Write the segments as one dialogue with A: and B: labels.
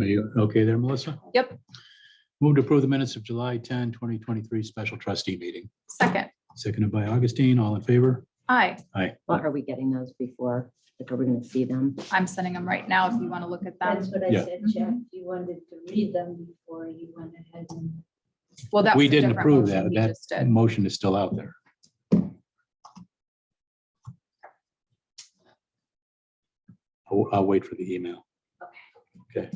A: Are you okay there, Melissa?
B: Yep.
A: Move to approve the minutes of July 10, 2023 special trustee meeting,
B: Second,
A: seconded by Augustine. All in favor?
B: aye,
C: Well, are we getting those before? Like, are we gonna see them?
B: I'm sending them right now if you want to look at
D: That's
B: them.
D: what I
A: Yeah.
D: said, Jeff, you wanted to read them before you went ahead and.
B: Well, that
A: We
B: was a
A: didn't
B: different
A: approve
B: motion
A: that.
B: we
A: That-
B: just did.
A: Motion is still out there. I'll, I'll wait for the email.
D: Okay.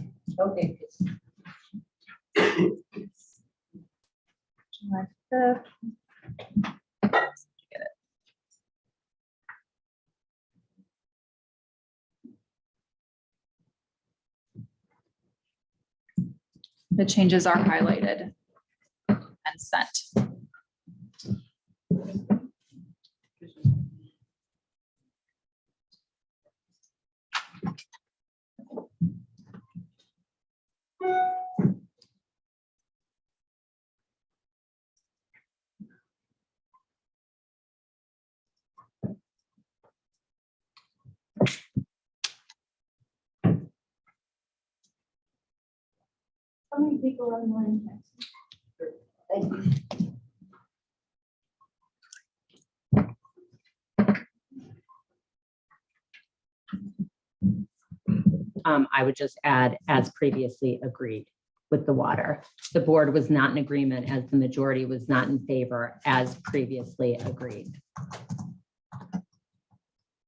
B: July fifth. Get it. The changes are highlighted and sent.
D: How many people online? Thank you.
C: Um, I would just add, as previously agreed with the water. The board was not in agreement as the majority was not in favor as previously agreed.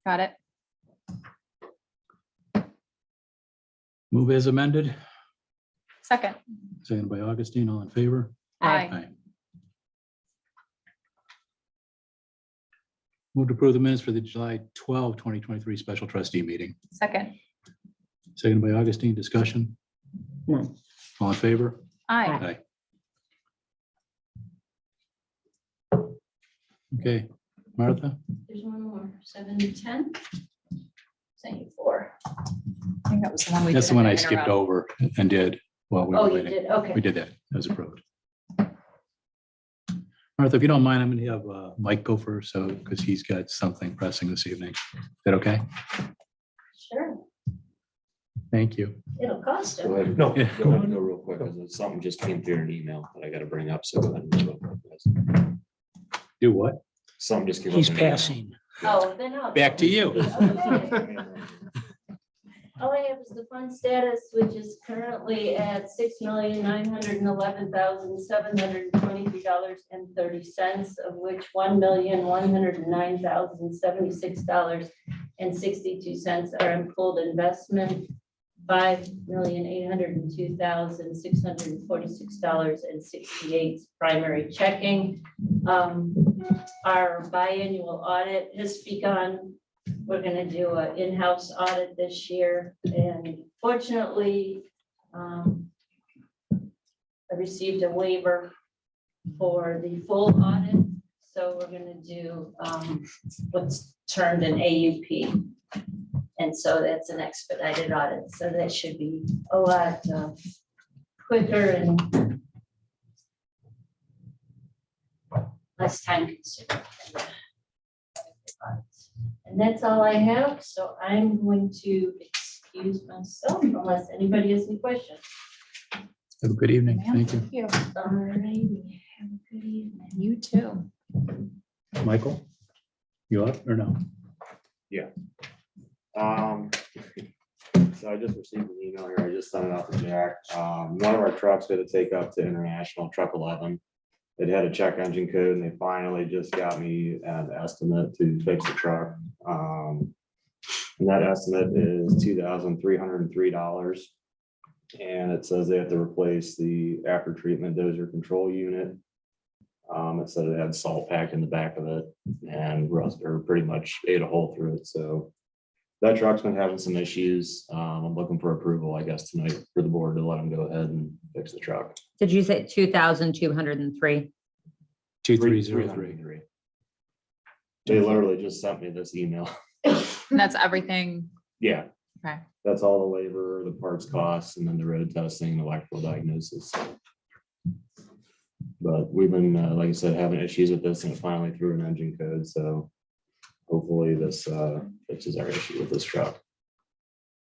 B: Got it?
A: Move as amended,
B: Second,
A: seconded by Augustine. All in favor?
B: aye.
A: Aye. Move to approve the minutes for the July 12, 2023 special trustee meeting,
B: Second,
A: seconded by Augustine. Discussion?
C: None.
A: All in favor?
B: aye.
A: Aye. Okay, Martha?
D: There's one more, seven to ten. Saying four.
B: I think that was the one we.
A: That's
B: did
A: the one
B: in
A: I
B: the
A: skipped
B: interim.
A: over and did while we were
D: Oh, you
A: waiting.
D: did, okay.
A: We did that as approved. Martha, if you don't mind, I'm going to have uh, Mike go first, so, because he's got something pressing this evening. Is that okay?
D: Sure,
A: Thank you.
D: it'll cost
E: Go
D: them.
E: ahead,
F: No.
E: go ahead, go real quick, 'cause it's something just came through an email that I gotta bring up, so. go ahead and go real quick, guys.
A: Do what?
E: Something just came. up
F: He's
E: in an email.
F: passing.
D: Oh, then I'll.
A: Back to you.
D: Okay. All I have is the fund status, which is currently at six million, nine hundred and eleven thousand, seven hundred and twenty-three dollars and thirty cents, of which one million, one hundred and nine thousand, seventy-six dollars and sixty-two cents are in pooled investment, five million, eight hundred and two thousand, six hundred and forty-six dollars and sixty-eight primary checking. Um, Our biannual audit has begun. We're gonna do an in-house audit this year, and fortunately, um, I received a waiver for the full audit, so we're gonna do, um, what's termed an AUP. And so that's an expedited audit, so that should be a lot uh, quicker and less time consuming. And that's all I have, so I'm going to excuse myself unless anybody has any questions.
A: Have a good evening.
B: Ma'am,
A: Thank you.
D: Alrighty, have a good evening.
B: You too.
A: Michael? You up or no?
E: Um, so I just received an email here, I just sent it out to Jack, um, one of our trucks had to take up to International Truck Eleven. It had a check engine code, and they finally just got me an estimate to fix the truck, um. And that estimate is two thousand three hundred and three dollars. And it says they have to replace the after treatment dozer control unit. Um, it said it had salt packed in the back of it and rust, or pretty much ate a hole through it, so. That truck's been having some issues. Um, I'm looking for approval, I guess, tonight for the board to let them go ahead and fix the truck.
C: Did you say two thousand two hundred and three?
A: Two, three, zero, three.
E: They literally just sent me this email.
B: And that's everything.
E: Yeah.
B: Okay.
E: That's all the labor, the parts costs, and then the road testing, and electrical diagnosis. But we've been, uh, like I said, having issues with this and it finally through an engine code, so hopefully this, uh, fixes our issue with this truck.